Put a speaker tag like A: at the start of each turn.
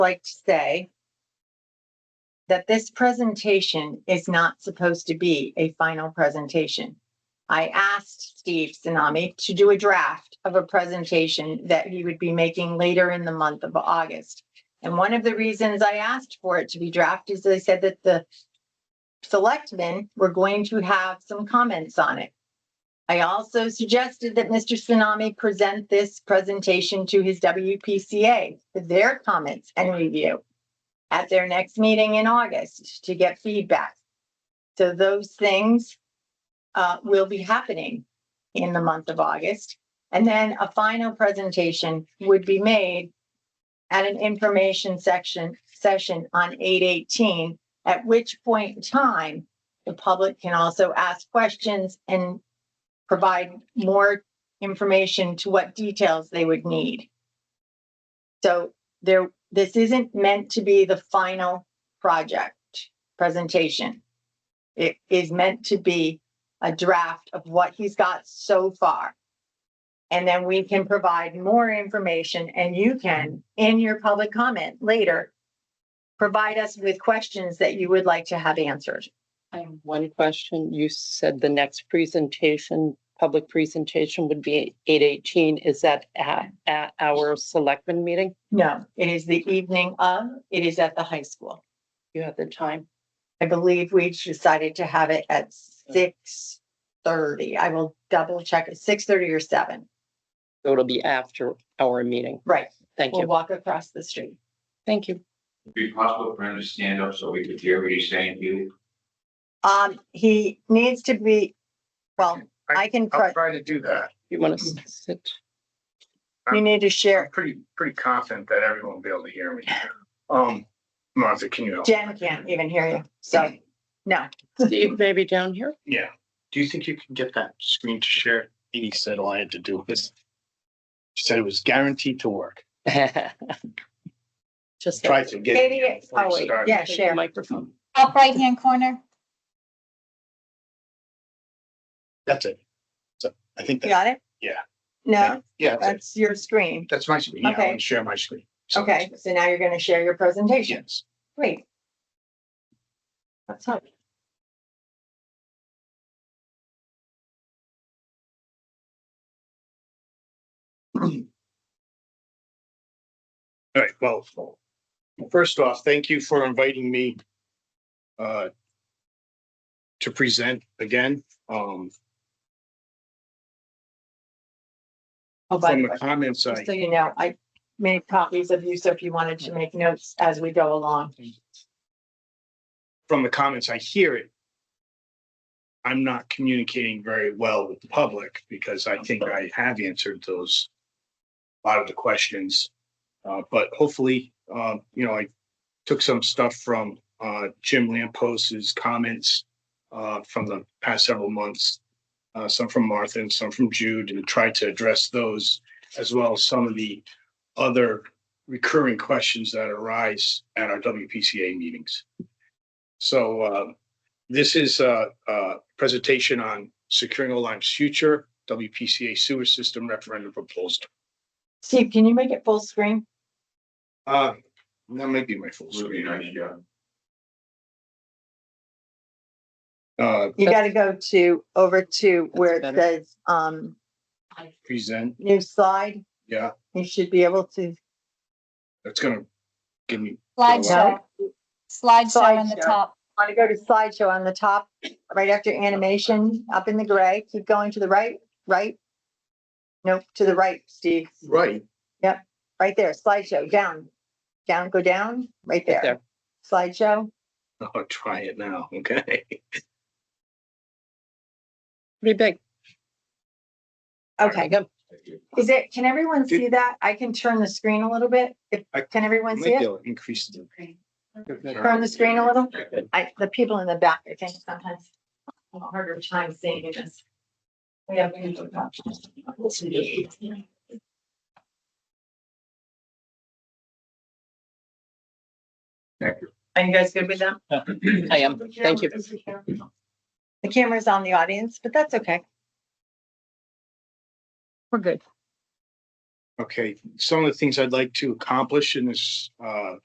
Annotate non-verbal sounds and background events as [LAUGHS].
A: like to say that this presentation is not supposed to be a final presentation. I asked Steve Tsunami to do a draft of a presentation that he would be making later in the month of August. And one of the reasons I asked for it to be drafted is they said that the selectmen were going to have some comments on it. I also suggested that Mr. Tsunami present this presentation to his WPCA for their comments and review at their next meeting in August to get feedback. So those things uh, will be happening in the month of August. And then a final presentation would be made at an information section, session on eight eighteen, at which point in time, the public can also ask questions and provide more information to what details they would need. So there, this isn't meant to be the final project presentation. It is meant to be a draft of what he's got so far. And then we can provide more information and you can, in your public comment later, provide us with questions that you would like to have answered.
B: I have one question. You said the next presentation, public presentation would be eight eighteen. Is that at, at our selectmen meeting?
A: No, it is the evening of, it is at the high school.
B: You have the time?
A: I believe we decided to have it at six thirty. I will double check it, six thirty or seven.
B: So it'll be after our meeting.
A: Right,
B: Thank
A: we'll
B: you.
A: walk across the street.
B: Thank you.
C: It'd Be possible for him to stand up so we could hear what he's saying to you?
A: Um, he needs to be, well, I can,
D: I'll
A: press-
D: try to do that.
B: You want to sit?
A: you need to
D: I'm
A: share,
D: pretty, pretty confident that everyone will be able to hear me. Um, Martha, can you help?
A: Jen can't even hear you, so, no.
B: Steve, maybe down [LAUGHS] here?
D: Yeah.
E: Do you think you can get that screen to share? He said all I had to do was, she said it was guaranteed to work.
B: Just
E: Tried to get.
A: Katie, it's- oh wait, yeah,
B: take the
A: share.
B: microphone.
F: Top right-hand corner.
E: That's it. So I think
A: You
E: that,
A: Got it?
E: Yeah.
A: No,
E: yeah, that's it.
A: that's your screen.
E: that's my screen. Yeah, I
A: Okay.
E: want to share my screen. So-
A: Okay, so now you're gonna share your presentation.
E: Yes.
A: Great. Let's hope.
E: All right, well, first off, thank you for inviting me uh, to present again. Um,
A: Oh, by
E: From
A: the
E: the
A: way,
E: comments,
A: just so
E: I,
A: you know, I made copies of you, so if you wanted to make notes as we go along.
E: from the comments, I hear it. I'm not communicating very well with the public because I think I have answered those, a lot of the questions. Uh, but hopefully, uh, you know, I took some stuff from, uh, Jim Lampos's comments, uh, from the past several months. Uh, some from Martha and some from Jude and tried to address those as well as some of the other recurring questions that arise at our WPCA meetings. So uh, this is a, a presentation on securing Olime's future WPCA sewer system referendum proposal.
A: Steve, can you make it full screen?
E: Uh, that might be my full
C: Would be nice,
E: screen.
C: yeah.
E: Uh,
A: You gotta
B: That's-
A: go to, over to where it
B: better.
A: says, um,
E: present,
A: new slide.
E: yeah,
A: You should be able to,
E: that's gonna give me,
F: Slideshow. Slideshow on the
A: Slideshow.
F: top.
A: wanna go to slideshow on the top, right after animation, up in the gray, keep going to the right, right? Nope, to the right, Steve,
E: right,
A: right there, slideshow, down, down, go down, right
B: Right
A: there. Slideshow,
E: I'll Oh, try it now, okay?
B: Pretty big.
A: okay,
B: There you go.
C: Thank you.
A: is it, can everyone see that? I can turn the screen a little bit, if,
E: I-
A: can everyone see
E: Might be
A: it?
E: able to Increase the.
A: Turn the screen a little? I, the people in the back, I think sometimes have a harder time seeing this. We have.
C: Thank you.
A: Are you guys good with that?
B: I am. Thank you.
A: The camera's on the audience, but that's okay. We're good.
E: Okay, some of the things I'd like to accomplish in this uh